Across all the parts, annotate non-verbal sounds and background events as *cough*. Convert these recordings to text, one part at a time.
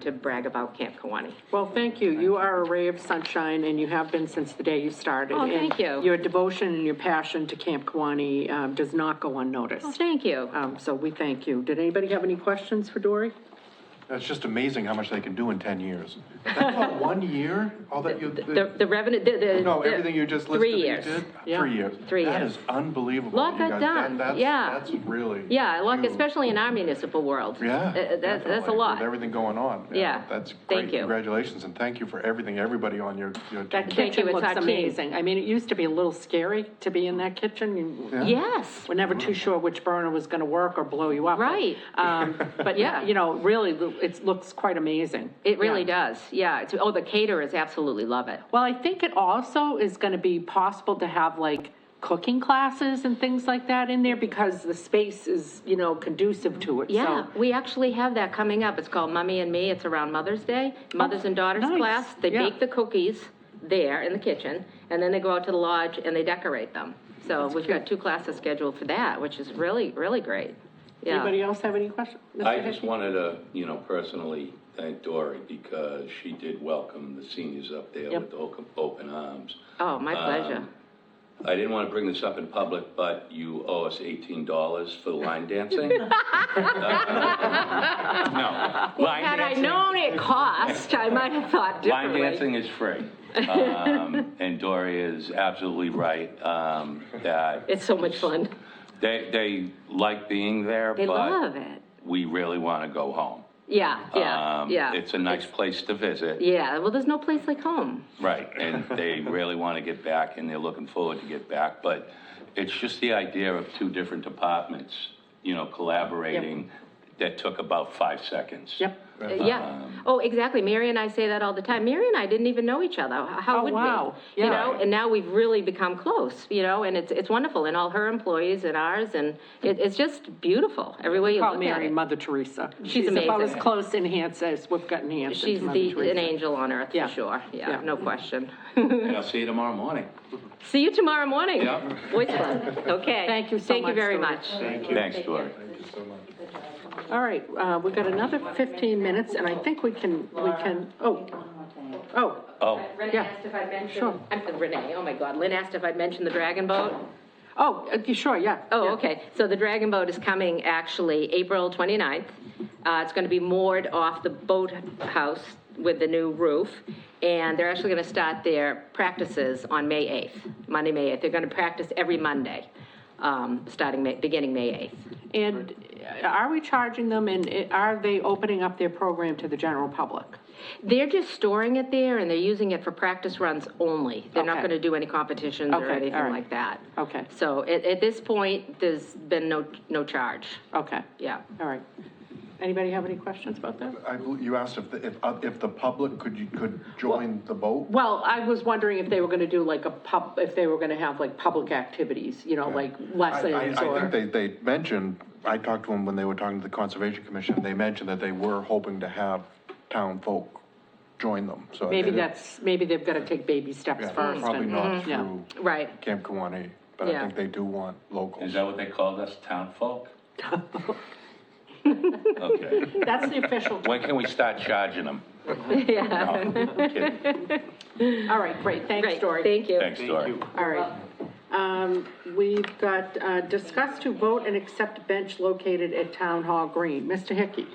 to brag about Camp Kawani. Well, thank you. You are a ray of sunshine, and you have been since the day you started. Oh, thank you. And your devotion and your passion to Camp Kawani um, does not go unnoticed. Thank you. Uh, Um, So we thank you. Did anybody have any questions for Dory? It's just amazing how much they can do in *laughs* 10 years. That's about one year, all that you, The, the revenue, the, the. no, the- everything you just listed. Three that you years. did? Yeah. Three years. Three That years. is unbelievable. Lot you got guys. done, And that's- yeah. That's really. Yeah, like, huge. especially in our municipal world. Yeah. Uh, That's, that's a definitely, lot. With everything going on. Yeah. That's Thank great. you. Congratulations, and thank you for everything, everybody on your, your That Thank you, team. kitchen it's our looks team. amazing. I mean, it used to be a little scary to be in that kitchen. You- Yes, We're never too sure which burner was going to work or blow you up. Right. Um, *laughs* But, Yeah. yeah, you know, really, it looks quite amazing. it really Yeah. does. Yeah. It's, oh, the caterers absolutely love it. Well, I think it also is going to be possible to have like cooking classes and things like that in there because the space is, you know, conducive to it. Yeah, So, we actually have that coming up. It's called Mummy and Me. It's around Mother's Day, Mothers and Daughters nice. class. They Yeah. bake the cookies there in the kitchen, and then they go out to the lodge and they decorate them. So we've got two classes scheduled for that, which is really, really great. Anybody Yeah. else have any questions? I Mr. just Hickey? wanted to, you know, personally thank Dory because she did welcome the seniors up there Yep. with open, open arms. Oh, Uh, my pleasure. I didn't want to bring this up in public, but you owe us eighteen dollars for the line *laughs* dancing. No, line Had I dancing- known it cost, I might have thought Line differently. dancing is free. *laughs* Um, And Dory is absolutely right, um, that It's so much fun. they, they like being there, They love but it. we really want to go home. Yeah, yeah, Um, yeah. It's a nice place to visit. Yeah, well, there's no place like home. *laughs* Right, and they really want to get back, and they're looking forward to get back, but it's just the idea of two different departments, you know, collaborating, that took about five seconds. Yep. Uh, Yeah. um, Oh, exactly. Mary and I say that all the time. Mary and I didn't even know each other. How- How Oh, would we? wow. You Yeah. know, and now we've really become close, you know, and it's, it's wonderful. And all her employees and ours, and it, it's just beautiful every way you Call look at Mary it. Mother Teresa. about as amazing. close in hands as we've gotten hands She's into Mother the, an Teresa. angel on earth, for Yeah. sure. Yeah, Yeah. no question. *laughs* And I'll see you tomorrow morning. See you tomorrow morning. Yeah. Boys Club. Okay. Thank you so *laughs* Thank you much, very Dory. much. Thanks, Dory. All right, uh, we've got another 15 minutes, and I think we can, we can, oh, oh, Oh, Uh, Renee Yeah. asked if I'd mentioned, Sure. I'm, Renee, oh my God, Lynn asked if I'd mentioned the Dragon Boat. oh, uh, sure, yeah. Oh, yeah. okay. So the Dragon Boat is coming actually April 29th. Uh, It's going to be moored off the boathouse with the new roof, and they're actually going to start their practices on May 8th, Monday, May 8th. They're going to practice every Monday, um, starting, May- beginning May 8th. And uh, are we charging them, and uh, are they opening up their program to the general public? They're just storing it there, and they're using it for practice runs only. They're not Okay. going to do any competitions Okay, or all anything right. like that. Okay. So at at this point, there's been no no charge. Okay. Yeah. All right. Anybody have any questions about that? I bel- You asked if, the- if, uh, if the public could, you could join the boat? Well, I was wondering if they were gonna do like a pub, if they were gonna have like public activities, you know, like I- I, lessons I or. think they, they mentioned, I talked to them when they were talking to the Conservation Commission, they mentioned that they were hoping to have town folk join them, so. Maybe they- that's, maybe they've gotta take baby steps yeah, first. Probably and- Mhm. not yeah. through Right. Camp Kawani, but Yeah. I think they do want is locals. that what they called us, town folk? *laughs* Okay, That's the *laughs* official, when can we start charging them? *laughs* Yeah. all right, great, thanks, Great. Dory. Thank you. Thanks, Dory. All right. Um, we've got, uh, discuss to vote and accept bench located at Town Hall Green. Mr. Hickey?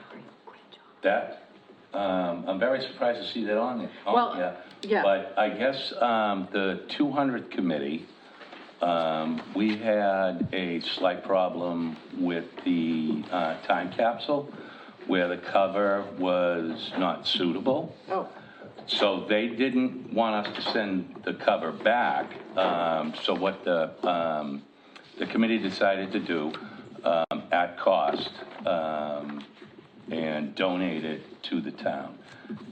That, um, I'm very surprised to see that on there. on Well, there. yeah. But I guess, um, the two hundredth committee, um, we had a slight problem with the, uh, time capsule where the cover was not suitable. Oh, So they didn't want us to send the cover back. Um, so what the, um, the committee decided to do, um, at cost, um, and donate it to the town.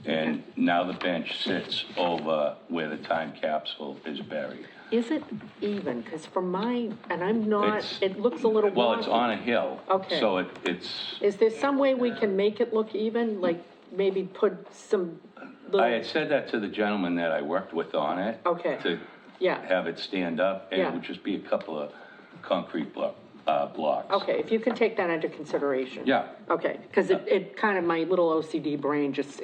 And now the bench sits over where the time capsule is buried. is it even? Because from my, and I'm not, It's- it looks a little wonky. Well, it's on a hill. Okay. So it, it's, Is there some way we can make it look even, like maybe put some I little, had said that to the gentleman that I worked with on it. Okay. To yeah, have it stand up, and Yeah. it would just be a couple of concrete blo- uh, blocks. okay, if you can take that into consideration. Yeah. Okay, because it, it kind of, my little OCD brain just